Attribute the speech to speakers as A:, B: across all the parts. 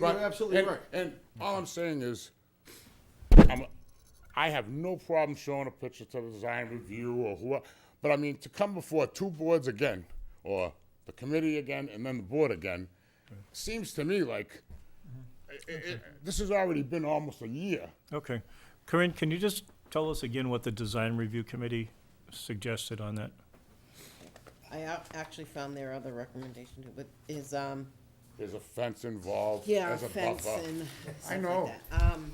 A: But-
B: You're absolutely
A: and-
B: right.
A: And all I'm saying is, I'm, I have no problem showing a picture to the design review or whoever, but I mean, to come before two boards again, or the committee again, and then the board again, seems to me like, i- i- i- this has already been almost a year.
C: Okay. Corinne, can you just tell us again what the design review committee suggested on that?
D: I ac- actually found their other recommendation too, but is, um,
A: There's a fence involved,
D: yeah,
A: there's a
D: fence
A: buffer.
D: and
A: I
D: stuff
A: know.
D: like that. Um,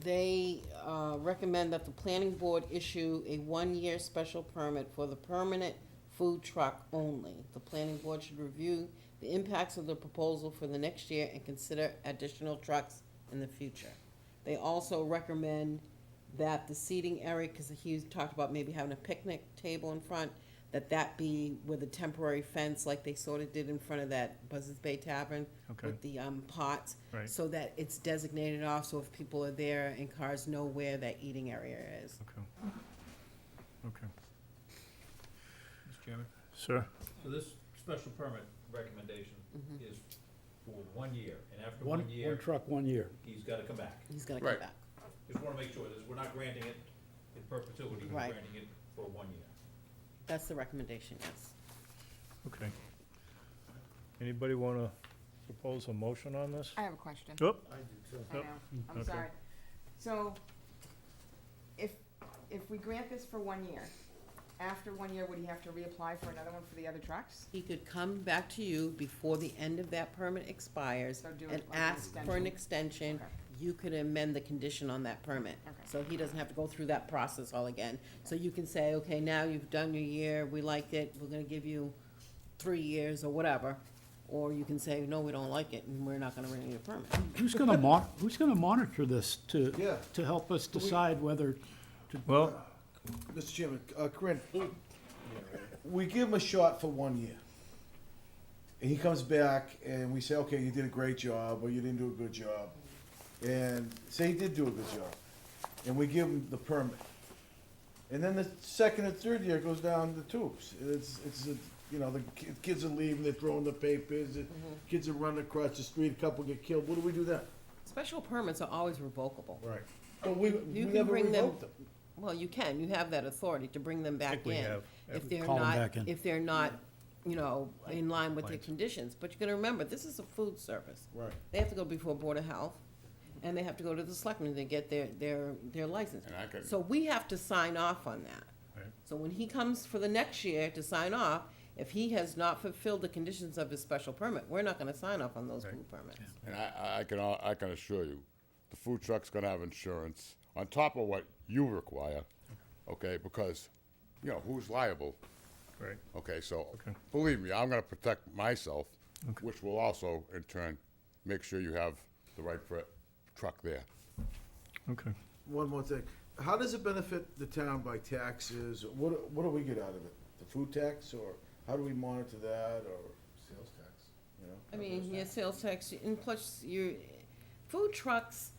D: they, uh, recommend that the planning board issue a one-year special permit for the permanent food truck only. The planning board should review the impacts of the proposal for the next year and consider additional trucks in the future. They also recommend that the seating area, because he talked about maybe having a picnic table in front, that that be with a temporary fence like they sort of did in front of that Buzzards Bay Tavern
C: Okay.
D: with the um, pots.
C: Right.
D: So that it's designated off, so if people are there and cars know where that eating area is.
C: Okay. Okay.
E: Mr. Chairman?
C: Sir?
E: So this special permit recommendation is for one year, and after
F: One,
E: one
F: one
E: year,
F: truck, one year.
E: he's gotta come back.
D: He's gonna come
A: Right.
D: back.
E: Just wanna make sure, that we're not granting it in perpetuity, we're
D: Right.
E: granting it for one year.
D: That's the recommendation, yes.
C: Okay. Anybody want to propose a motion on this?
G: I have a question.
C: Oop,
G: I know,
C: Yep.
G: I'm
C: okay.
G: sorry. So, if, if we grant this for one year, after one year, would he have to reapply for another one for the other trucks?
D: He could come back to you before the end of that permit expires
G: So do it
D: and
G: like an
D: ask for an extension.
G: extension. Okay.
D: You could amend the condition on that permit.
G: Okay.
D: So he doesn't have to go through that process all again. So you can say, okay, now you've done your year, we like it, we're gonna give you three years or whatever. Or you can say, no, we don't like it, and we're not gonna renew your permit.
F: Who's gonna mon, who's gonna monitor this to,
B: Yeah.
F: to help us decide whether to
C: Well,
B: Mr. Chairman, uh, Corinne, we give him a shot for one year. And he comes back and we say, okay, you did a great job, or you didn't do a good job. And say he did do a good job. And we give him the permit. And then the second and third year goes down the tubes. It's, it's, a- you know, the ki- kids are leaving, they're throwing the papers, the kids are running across the street, a couple get killed. What do we do then?
D: Special permits are always revocable.
B: Right. But we, we
D: You can
B: never
D: bring them,
B: revoked them.
D: well, you can, you have that authority to bring them back
C: think we
D: in.
C: have.
D: If they're
F: Call 'em back
D: not,
F: in.
D: if they're not, you know, in line with the
C: Complaints.
D: conditions. But you gotta remember, this is a food service.
B: Right.
D: They have to go before Board of Health, and they have to go to the selectmen to get their, their, their license.
A: And I could-
D: So we have to sign off on that.
C: Right.
D: So when he comes for the next year to sign off, if he has not fulfilled the conditions of his special permit, we're not gonna sign off on those food permits.
A: And I, I- I can, al- I can assure you, the food truck's gonna have insurance on top of what you require, okay? Because, you know, who's liable?
C: right,
A: Okay, so,
C: Okay.
A: believe me, I'm gonna protect myself, which will also, in turn, make sure you have the right fr- truck there.
C: okay.
B: One more thing. How does it benefit the town by taxes? What, what do we get out of it? The food tax or how do we monitor that or? Sales tax. You know?
D: I mean, yeah, sales tax, and plus your, food trucks,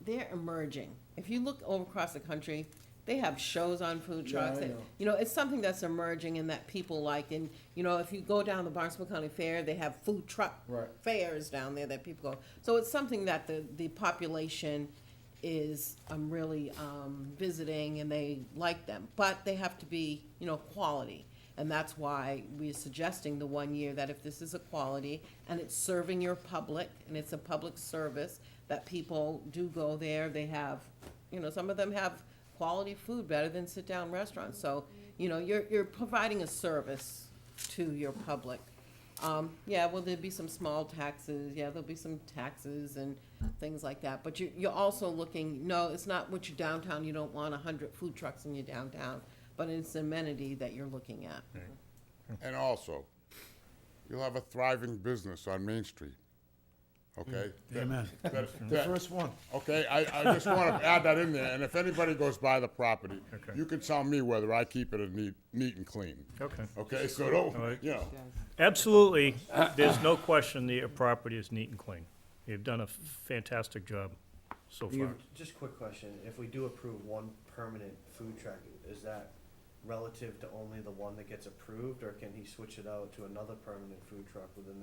D: they're emerging. If you look over across the country, they have shows on food
B: Yeah,
D: trucks.
B: I
D: and,
B: know.
D: You know, it's something that's emerging and that people like. And, you know, if you go down the Barnstable County Fair, they have food truck
B: Right.
D: fairs down there that people go. So it's something that the, the population is, um, really, um, visiting and they like them. But they have to be, you know, quality. And that's why we're suggesting the one year that if this is a quality and it's serving your public and it's a public service, that people do go there, they have, you know, some of them have quality food better than sit-down restaurants. So, you know, you're, you're providing a service to your public. Um, yeah, well, there'd be some small taxes, yeah, there'll be some taxes and things like that, but you, you're also looking, no, it's not what your downtown, you don't want a hundred food trucks in your downtown, but it's amenity that you're looking at.
A: And also, you'll have a thriving business on Main Street, okay? That-
F: Amen.
A: that-
B: The
A: that-
B: first one.
A: Okay, I, I just wanna add that in there, and if anybody goes by the property,
C: Okay.
A: you can tell me whether I keep it a neat, neat and clean,
C: Okay.
A: okay? So
C: All
A: don't,
C: right.
A: you know,
C: Absolutely, there's no question the property is neat and clean. You've done a fantastic job so
H: You-
C: far.
H: Just a quick question, if we do approve one permanent food truck, is that relative to only the one that gets approved, or can he switch it out to another permanent food truck within the